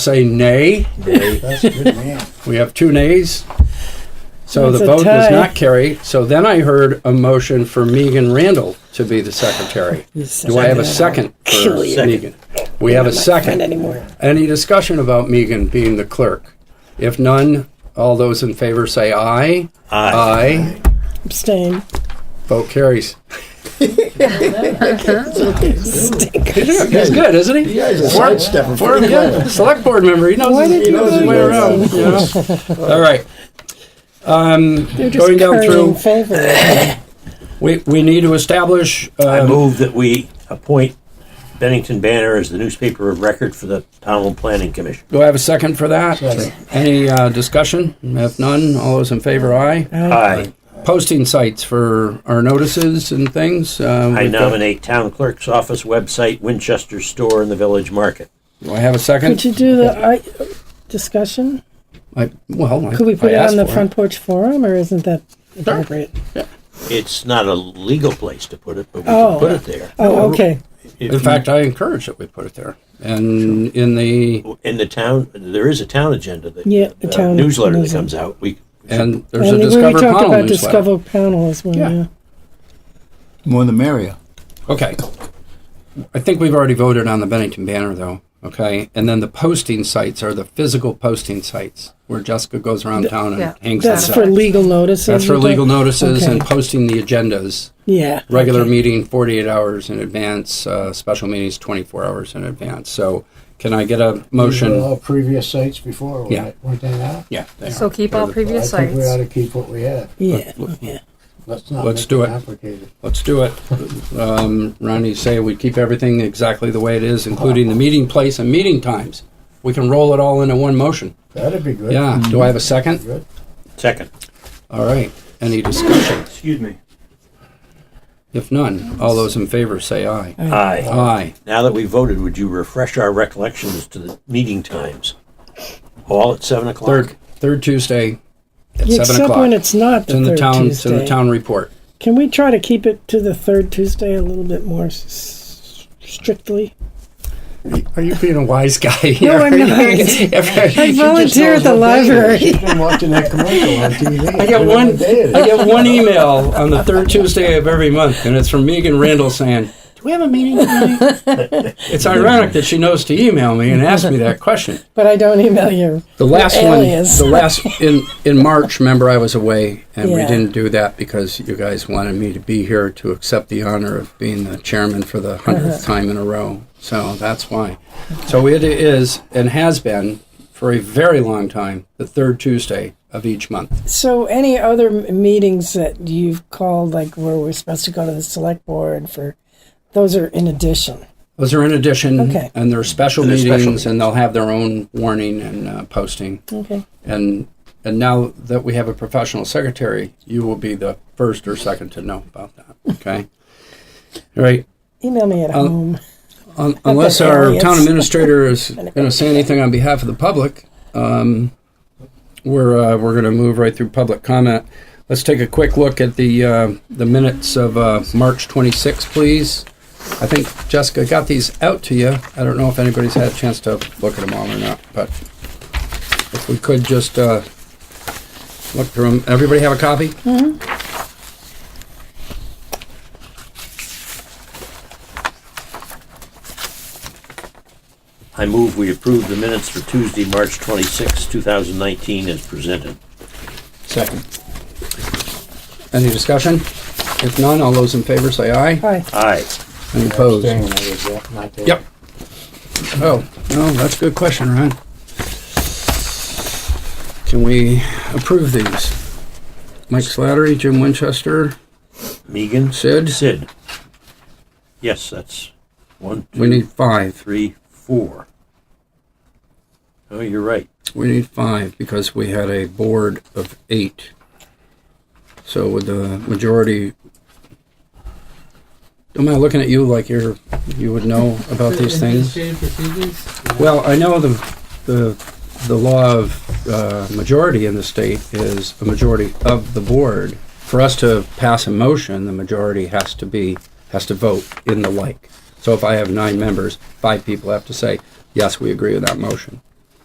say nay. That's a good man. We have two nays. So the That's a vote does tie. not carry. So then I heard a motion for Megan Randall to be the secretary. Do I have a second for Kill you. Megan? We have a Friend second. anymore. Any discussion about Megan being the clerk? If none, all those in favor say aye. Aye. Abstain. Vote carries. He's good, isn't he? You guys are sidestepping. Or, pretty well. yeah, select board member. He knows Why his, did he you knows his do way that? around. you know? All right. Um, You're just going down currying through, favor. we, we need to establish. I Um, move that we appoint Bennington Banner as the newspaper of record for the Pownell Planning Commission. do I have a second for that? Second. Any uh, discussion? If none, all those in favor, aye. Uh, Aye. Posting sites for our notices and things. Uh, I we've got- nominate Town Clerk's Office website, Winchester Store, and the Village Market. Do I have a Could second? you do the I, discussion? I, well, I- Could we put I it asked on the for front porch forum, or isn't that appropriate? It's not a legal place to put it, but we Oh. can put it there. Oh, okay. If In you- fact, I encourage that we put it there. And in the in the town, there is a town agenda that Yeah, the uh, town newsletter that newsletter. comes out. We and there's a And we discover talked Powell about newsletter. Discover panel as well. Yeah. Yeah. More the merrier. Okay. I think we've already voted on the Bennington banner, though. Okay. And then the posting sites are the physical posting sites where Jessica goes around town and Yeah. hangs That's those for up. legal notices. That's for you think? legal notices and Okay. posting the agendas. Yeah. Regular uh, okay. meeting 48 hours in advance, uh, special meetings 24 hours in advance. So can I get a These were motion? All previous sites before, Yeah. weren't weren't they not? Yeah. they are. So keep all previous I think we ought sites. to keep what we have. Yeah. yeah. Let's not Let's make do it. complicated. Let's do it. Um, Ronnie say we keep everything exactly the way it is, including the meeting place and meeting times. We can roll it all into one motion. That'd be good. Yeah. Do I have a second? Good. second. All right. Any discussion? Excuse me. If none, all those in favor say aye. Aye. Aye. Now that we voted, would you refresh our recollections to the meeting times? All at seven o'clock. Third, third Tuesday at seven Except o'clock. when it's not It's the in the third town, it's Tuesday. in the town report. Can we try to keep it to the third Tuesday a little bit more s- strictly? Are you being a wise guy here? No, I'm not. I volunteer at the library. She's been watching that commercial on TV. I get one. I Day get one email on the third Tuesday of every month, and it's from Megan Randall saying, "Do we have a meeting tonight?" it's ironic that she knows to email me and ask me that question. But I don't email you. The last You're one, aliens. the last in in March. Remember, I was away, and we Yeah. didn't do that because you guys wanted me to be here to accept the honor of being the chairman for the 100th Uh-huh. time in a row. So that's why. So it is and has been for a very long time the third Tuesday of each month. So, any other m- meetings that you've called, like where we're supposed to go to the select board for, those are in addition. Those are in addition, Okay. and they're special They're meetings, special and they'll have their own warning and uh, posting. Okay. And and now that we have a professional secretary, you will be the first or second to know about that. Okay. All right. Email me at home. Un- Unless Okay, our Elliot's- town administrator is going to say anything on behalf of the public, um, we're, uh, we're going to move right through public comment. Let's take a quick look at the, uh, the minutes of, uh, March 26, please. I think Jessica got these out to you. I don't know if anybody's had a chance to look at them all or not, but if we could just, uh, look through them. Everybody have a copy? I move we approve the minutes for Tuesday, March 26, 2019, as presented. Second. Any discussion? If none, all those in favor say aye. Hi. Aye. Any opposed? Abstain, I was there, not there. Yep. Oh, no, that's a good question, Ryan. Can we approve these? Mike Slattery, Jim Winchester, Megan? Sid? Sid. Yes, that's one, we two, need five. three, four. Oh, you're right. We need five because we had a board of eight. So with the majority, am I looking at you like you're, you would know about these things? Administrative procedures? Well, I know the, the, the law of uh, majority in the state is a majority of the board. For us to pass a motion, the majority has to be, has to vote in the like. So if I have nine members, five people have to say, yes, we agree with that motion.